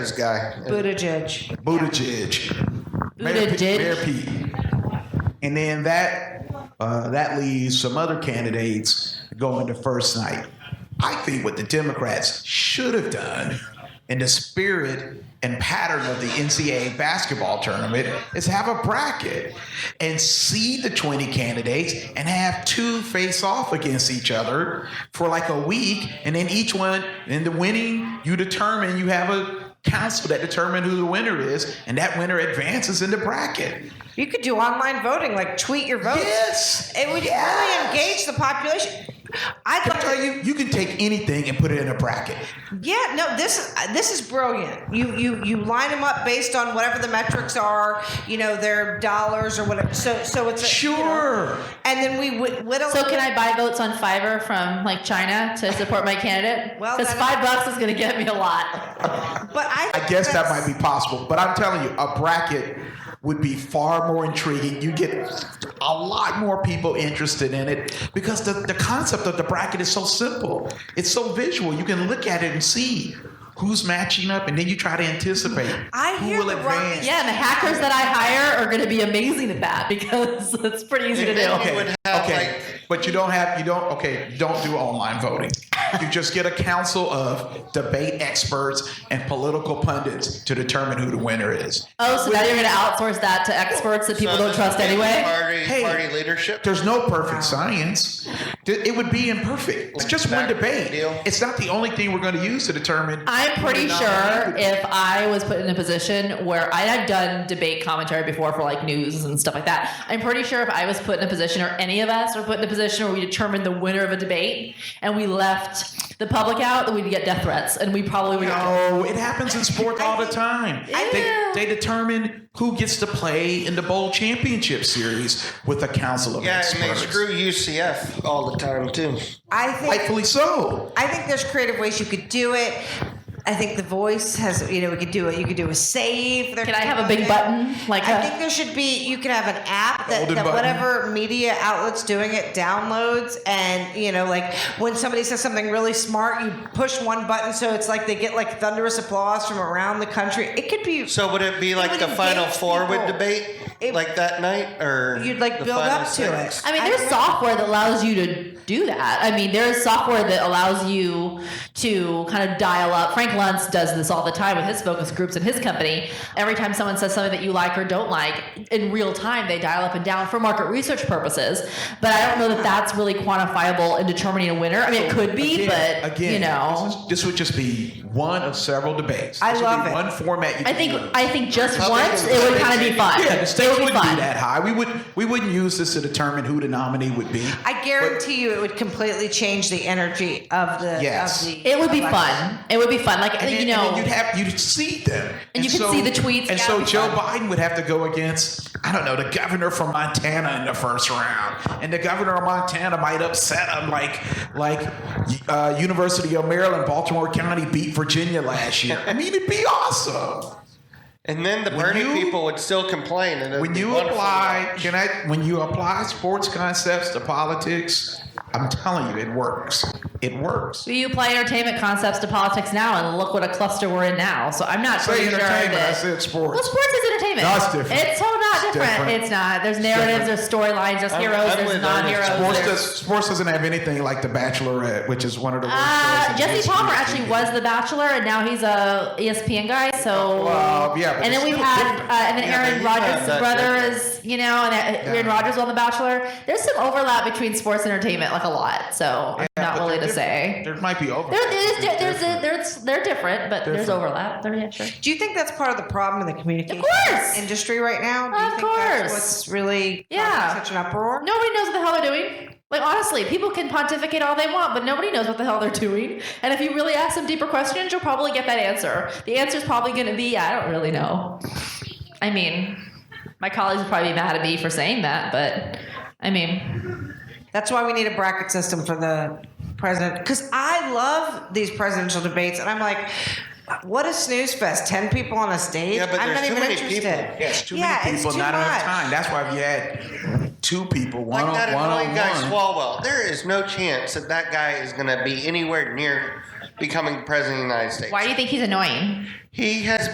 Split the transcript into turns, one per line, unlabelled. This guy,
Buttigieg.
Buttigieg, Mayor Pete,
Buttigieg.
Mayor Pete, and then that uh, that leaves some other candidates going to first night. I think what the Democrats should have done, in the spirit and pattern of the NCAA basketball tournament, is have a bracket and see the 20 candidates and have two face off against each other for like a week, and then each one, and the winning, you determine you have a council that determine who the winner is, and that winner advances in the bracket.
You could do online voting, like tweet your votes.
Yes.
It would
Yes.
really engage the population. I
Can I
thought
tell you, you can take anything and put it in a bracket.
Yeah, no, this is uh, this is brilliant. You you you line them up based on whatever the metrics are, you know, their dollars or whatever. So so it's a, you know,
Sure.
and then we whit- whittle.
So can I buy votes on Fiverr from like China to support my candidate?
Well,
because
then-
five bucks is going to get me a lot.
But I,
I guess that might be possible, but I'm telling you, a bracket would be far more intriguing. You get a lot more people interested in it because the, the concept of the bracket is so simple. It's so visual. You can look at it and see who's matching up, and then you try to anticipate
I
who
hear
will
the
advance.
Yeah, and the hackers that I hire are going to be amazing at that because it's pretty easy to do.
okay. okay. but you don't have you don't okay you don't do online voting you just get a council of debate experts and political pundits to determine who the winner is
Oh, so now you're going to outsource that to experts that people
So
don't
this
trust
is
anyway.
Party,
Hey.
party leadership.
there's no perfect science Th- it would be imperfect it's just one
Back to the
debate
deal.
it's not the only thing we're going to use to determine
I'm pretty sure if I was put in a position where I had done debate commentary before for like news and stuff like that, I'm pretty sure if I was put in a position or any of us were put in a position where we determined the winner of a debate and we left the public out, that we'd get death threats and we probably would.
No, it happens in sports all the time. They, they determine who gets to play in the bowl championship series with a council of
Yeah, and
experts.
they screw UCF all the time too.
I think
Rightfully so.
I think there's creative ways you could do it. I think the voice has, you know, we could do it. You could do a save. There
Can I
could
have a
be-
big button, like
I
a-
think there should be. You could have an app that,
Golden
that
button.
whatever media outlets doing it downloads, and you know, like when somebody says something really smart, you push one button, so it's like they get like thunderous applause from around the country. It could be.
So would it be like
would
the Final
engage
Four would
people.
debate,
It-
like that night, or
You'd, like,
the
build
Final
up to it.
Six?
I mean,
I
there's
don't-
software that allows you to do that. I mean, there's software that allows you to kind of dial up. Frank Luntz does this all the time with his focus groups in his company. Every time someone says something that you like or don't like, in real time, they dial up and down for market research purposes. But I don't know that that's really quantifiable in determining a winner. I mean, it could be,
Again-
but
again,
you
this,
know.
is- this would just be one of several debates.
I
This would
love
be
it.
One format. You
I
could
think
do it.
I think just
Public
once it would kind of be fun.
Yeah, the
it
stakes
would be
wouldn't
fun.
be that high. We would we wouldn't use this to determine who the nominee would be.
I guarantee you, it would completely change the energy of the.
Yes.
Of the
It would be
election.
fun. It would be fun. Like
And
you
then- and
know,
then you'd have you'd see them,
And you could see the tweets.
And
Yeah,
so
it'd be
Joe
fun.
Biden would have to go against I don't know the governor from Montana in the first round, and the governor of Montana might upset him, like like uh, University of Maryland, Baltimore County beat Virginia last year. I mean, it'd be awesome.
and then the
When
Bernie
you-
people would still complain. And it'd
when
be
you
wonderful.
apply can i when you apply sports concepts to politics i'm telling you it works it works
So you apply entertainment concepts to politics now, and look what a cluster we're in now. So I'm not
say
pretty sure
entertainment i
that-
said
Well,
sports
sports is entertainment.
No, it's different.
It's so not
It's
different.
different.
It's not. There's narratives. There's storylines. There's
I'm-
heroes.
I'm
there's
with Ernest.
non-heroes.
sports,
there's-
does, sports doesn't have anything like the bachelorette which is one of the worst shows
Uh,
in
Jesse
history.
Palmer actually was the Bachelor, and now he's a E ESPN guy. So,
Oh, Well, yeah, but
and
it's
then we've
still
had,
different.
uh, and then
Yeah, but
Aaron
he's not
Rodgers'
that
brother
different.
is, you know, and uh, Aaron
Yeah.
Rodgers on the Bachelor. There's some overlap between sports and entertainment, like a lot. So I'm
Yeah,
not
but
willing
they're
to
different.
say.
there might be over
There, there's, there's, there's, they're different, but there's
Different.
overlap. There, yeah, sure.
Do you think that's part of the problem in the communication
course.
industry right now? Do you
Of
think That's
course.
what's really
Yeah.
causing such an uproar?
Nobody knows what the hell they're doing. Like honestly, people can pontificate all they want, but nobody knows what the hell they're doing. And if you really ask some deeper questions, you'll probably get that answer. The answer's probably going to be, I don't really know. I mean, my colleagues would probably be mad at me for saying that, but I mean,
That's why we need a bracket system for the president. Because I love these presidential debates, and I'm like, what a snooze fest! Ten people on a stage.
Yeah, but
I'm
there's
not
too
even
many
interested.
people.
yeah, it's too
Yeah,
many
it's
people
too
not enough
much.
time that's why if you had two people one
Like that
on one
annoying
on
guy
one
Swalwell. There is no chance that that guy is going to be anywhere near becoming president of the United States.
Why do you think he's annoying?
He has